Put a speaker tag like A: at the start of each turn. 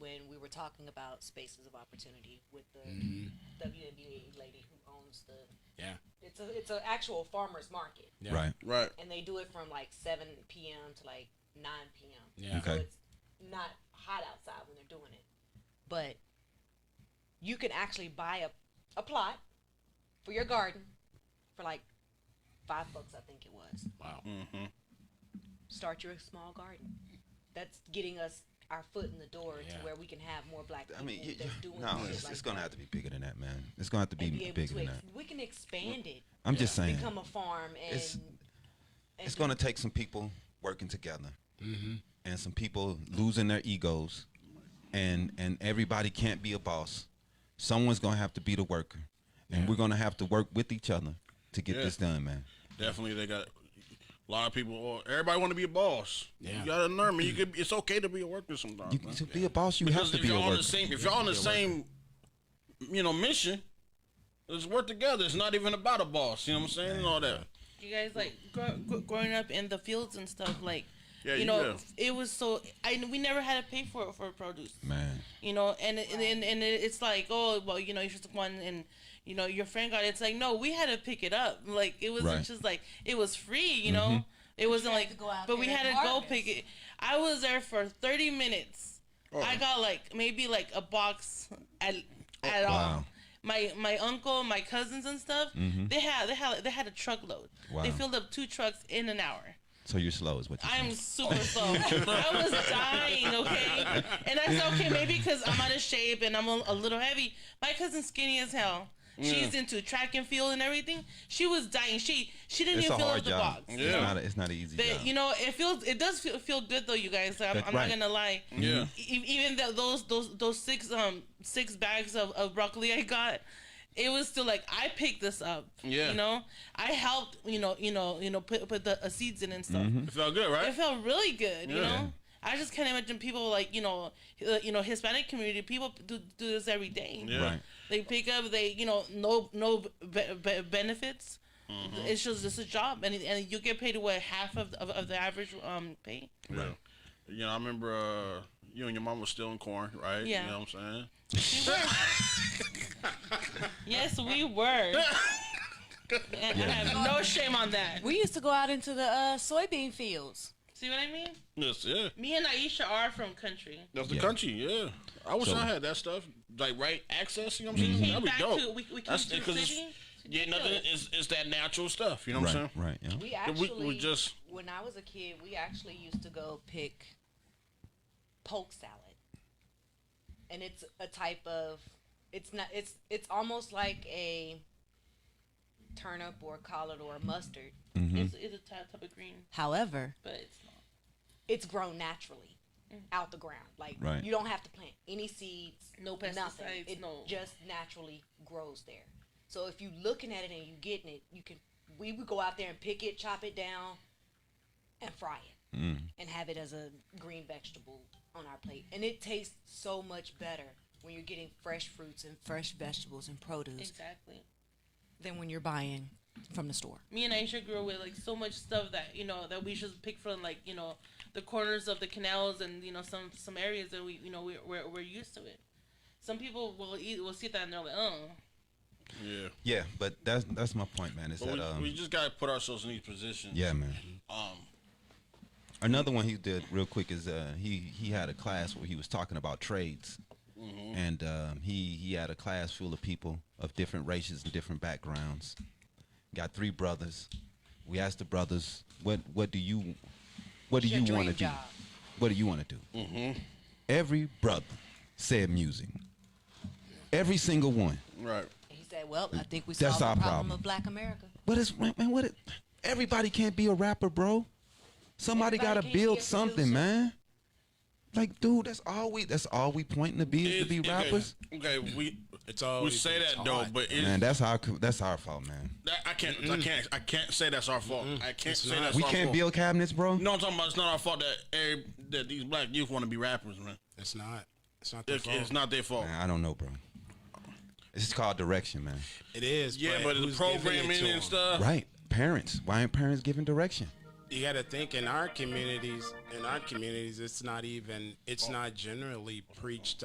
A: talking about spaces of opportunity with the
B: Mhm.
C: Mm-hmm.
A: WNBA lady who owns the.
B: Yeah.
A: It's a it's an actual farmers market,
B: Yeah.
D: Right.
C: Right.
A: and they do it from like seven p.m. to like nine p.m.
B: Yeah.
A: So
D: Okay.
A: it's not hot outside when they're doing it, but you can actually buy a a plot for your garden for like five bucks, I think it was.
B: Wow.
C: Mm-hmm.
A: Start your small garden. That's getting us our foot in the door
B: Yeah.
A: to where we can have more black people
D: I mean, you,
A: that's
D: you-
A: doing
D: no,
A: shit
D: it's,
A: like
D: it's gonna
A: that.
D: have to be bigger than that, man. It's gonna have to be,
A: and be able
D: bigger
A: to
D: than
A: ex-
D: that.
A: we can expand it
D: I'm just saying,
A: become a farm and
D: It's-
A: and
D: it's
A: do-
D: gonna take some people working together,
B: Mm-hmm.
D: and some people losing their egos, and and everybody can't be a boss. Someone's gonna have to be the worker, and
B: Yeah.
D: we're gonna have to work with each other to get
C: Yeah.
D: this done, man.
C: Definitely, they got a lot of people. Or everybody want to be a boss.
B: Yeah.
C: You got to learn. Man, you could. It's okay to be a worker sometimes.
D: You,
C: man.
D: to be a boss, you
C: Because
D: have
C: if
D: to be a
C: y'all on
D: worker.
C: the same, if y'all on the same, you know, mission, let's work together. It's not even about a boss. You know what I'm saying? And all that.
D: Mm-hmm.
E: you guys like grow, gr- growing up in the fields and stuff like
C: Yeah,
E: you
C: you
E: know
C: will.
E: it was so i we never had to pay for it for produce
D: Man,
E: you know and it- and, and and it- it's like oh well you know you're just one and you know your friend got it. it's like no we had to pick it up like it wasn't
D: Right.
E: just like it was free you know it wasn't
A: had
E: like
A: to go out
E: but we
A: there
E: had to
A: and
E: go
A: harvest.
E: pick it i was there for 30 minutes i got like maybe like a box at at all
D: Wow.
E: my my uncle, my cousins and stuff, they had they had they had a truckload. They
D: Wow.
E: filled up two trucks in an hour.
D: so you're slow, is what you're
E: I
D: saying.
E: am super slow. I was dying, okay? And I said, okay, maybe because I'm out of shape and I'm a, a little heavy. My cousin's skinny as hell.
D: Mm.
E: She's into track and field and everything. She was dying. She she didn't
D: It's a
E: even fill
D: hard
E: up the
D: job.
E: box.
C: Yeah.
D: It's not. A, it's not an easy
E: But
D: job.
E: you know, it feels it does feel, feel good though, you guys. I'm,
D: That's
E: I'm
D: right.
E: not gonna lie.
C: Yeah.
E: E- even th those those those six um six bags of, of broccoli I got, it was still like I picked this up.
C: Yeah.
E: You know, I helped. You know, you know, you know, put put the uh, seeds in and stuff.
D: Mm-hmm.
C: It felt good, right?
E: It felt really good. You
C: Yeah.
E: know. I just can't imagine people like you know, uh, you know Hispanic community people do, do this every day.
C: Yeah.
D: Right.
E: They pick up, they you know no no be, be, benefits.
C: Mm-hmm.
E: It's just it's a job, and and you get paid what half of of, of the average um pay.
C: Yeah. You know, I remember uh, you and your mom was still in corn, right?
E: Yeah.
C: You know what I'm saying?
E: Yes, we were. and I have no shame on that.
A: we used to go out into the uh, soybean fields
E: See what I mean?
C: Yes, yeah.
E: Me and Aisha are from country.
C: That's the
D: Yeah.
C: country, yeah. I wish
D: So- Mm-hmm.
C: I had that stuff, like right access. You know what I'm
E: Came
C: saying? Mm, That'd be
E: back
C: dope.
E: to we, we came
C: That's
E: to the
C: 'cause it's-
E: city.
C: yeah, nothing. It's, it's that natural stuff. You know what I'm
D: Right. Right.
C: saying?
D: Yeah.
A: we
C: Yeah, we- we
A: actually
C: just-
A: when i was a kid we actually used to go pick poke salad and it's a type of it's not it's it's almost like a turnip or collard or mustard
C: Mm-hmm.
E: It's, it's a type type of green,
A: however
E: but it's not.
A: it's grown naturally out the ground. Like
D: Right.
A: you don't have to plant any seeds,
E: No
A: nothing.
E: pesticides,
A: It
E: no-
A: just naturally grows there. So if you looking at it and you getting it, you can we would go out there and pick it, chop it down, and fry it,
D: Mm.
A: and have it as a green vegetable on our plate. And it tastes so much better when you're getting fresh fruits and fresh vegetables and produce
E: Exactly.
A: than when you're buying from the store.
E: me and Aisha grew up with like so much stuff that you know that we should pick from like you know the corners of the canals and you know some some areas that we you know we, we're we're used to it. Some people will eat will see that and they're like, oh,
C: Yeah.
D: Yeah, but that's that's my point, man. Is
C: But
D: that
C: we,
D: um,
C: we just gotta put ourselves in these positions.
D: yeah, man.
C: Um.
D: Another one he did real quick is uh, he he had a class where he was talking about trades,
C: Mm-hmm.
D: and um, he he had a class full of people of different races and different backgrounds. Got three brothers. We asked the brothers, "What what do you what do
A: What's your
D: you want
A: dream
D: to do?
A: job?"
D: What do you want to do?"
C: Mm-hmm.
D: Every brother said music. Every single one.
C: Right.
A: And he said, "Well, I think we
D: That's
A: solved the
D: our
A: problem,
D: problem.
A: of Black America.
D: What is man? What? Is, everybody can't be a rapper, bro.
A: Everybody
D: Somebody gotta
A: can't be a
D: build something,
A: producer.
D: man. Like, dude, that's all we. That's all we pointing to be is to
C: It's-
D: be
C: okay,
D: rappers.
C: Okay. We
F: It's all
C: we say
F: it's
C: that
F: hard.
C: though, but it,
D: Man, that's our. co- That's our fault, man.
C: that, I can't. I can't. I can't say that's our fault. I can't
F: It's
C: say
F: not.
C: that's
D: We
C: our
D: can't
C: fault.
D: build cabinets, bro.
C: You know what I'm talking about? It's not our fault that every, that these black youth want to be rappers, man.
F: It's not. It's not their
C: It,
F: fault.
C: it's not their fault.
D: Man, I don't know, bro. This is called direction, man.
F: It is.
C: Yeah, but the
F: who's giving it
C: programming
F: to
C: and
F: 'em?
C: stuff.
D: Right? Parents. Why aren't parents giving direction?
F: You got to think
C: Oh.
F: in our communities. In our communities, it's not even. It's not generally preached